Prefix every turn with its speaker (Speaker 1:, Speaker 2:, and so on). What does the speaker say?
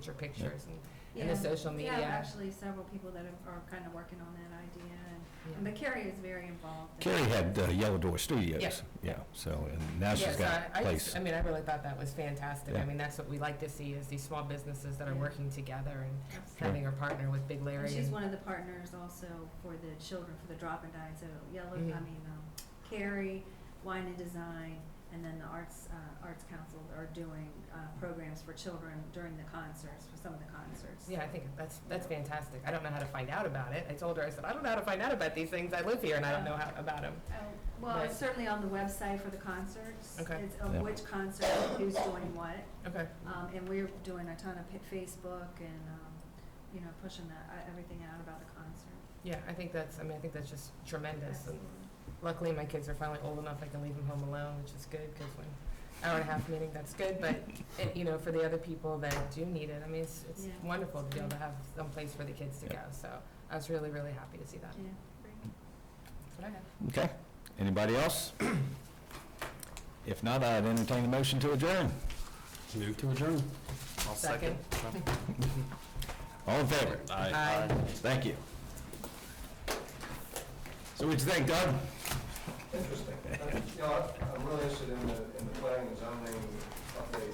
Speaker 1: your pictures and, and
Speaker 2: Yeah.
Speaker 1: the social media.
Speaker 2: We have actually several people that are- are kind of working on that idea, and- and, but Carrie is very involved. in
Speaker 3: Carrie
Speaker 2: it.
Speaker 3: had uh, Yellow Door Studios.
Speaker 1: Yeah.
Speaker 3: Yeah, so, and now
Speaker 1: Yeah,
Speaker 3: she's
Speaker 1: so
Speaker 3: got
Speaker 1: I-
Speaker 3: a
Speaker 1: I just-
Speaker 3: place.
Speaker 1: I mean, I really thought that was fantastic. I
Speaker 3: Yeah.
Speaker 1: mean, that's what we like to see is these small businesses that are
Speaker 2: Yeah.
Speaker 1: working together and
Speaker 2: Absolutely.
Speaker 1: having a partner with Big
Speaker 2: And
Speaker 1: Larry.
Speaker 2: she's
Speaker 1: and-
Speaker 2: one of the partners also for the children, for the drop and dine, so Yellow, I
Speaker 1: Mhm.
Speaker 2: mean, um, Carrie, Wine and Design, and then the Arts, uh, Arts Council are doing uh, programs for children during the concerts, for some of the concerts.
Speaker 1: Yeah, I think that's, that's fantastic. I don't know how to find out about it. I told her, I said, I don't know how to find out about these things. I live here and I don't know how, about them.
Speaker 2: Oh, Well, it's
Speaker 1: But-
Speaker 2: certainly on the website for the concerts.
Speaker 1: Okay.
Speaker 2: It's of
Speaker 3: Yeah.
Speaker 2: which concert, who's doing what.
Speaker 1: Okay.
Speaker 2: Um, and we're doing a ton of pa- Facebook and, um, you know, pushing that, uh, everything out about the concert.
Speaker 1: Yeah, I think that's, I mean, I think that's just tremendous. And Luckily, my kids are finally old enough I can leave them home alone, which is good, because when, hour and a half meeting, that's good, but, it- you know, for the other people that do need it, I mean, it's it's
Speaker 2: Yeah.
Speaker 1: wonderful to be able to have some place for the kids to go, so I was really, really happy to see that.
Speaker 2: Yeah.
Speaker 1: That's what I have.
Speaker 3: Okay. Anybody else? If not, I'd entertain the motion to adjourn.
Speaker 4: Move to adjourn. I'll
Speaker 1: Second.
Speaker 3: All in favor?
Speaker 1: Aye.
Speaker 3: Thank you. So what'd you think, Doug?
Speaker 5: Interesting. You know, I'm I'm really interested in the, in the planning and zoning update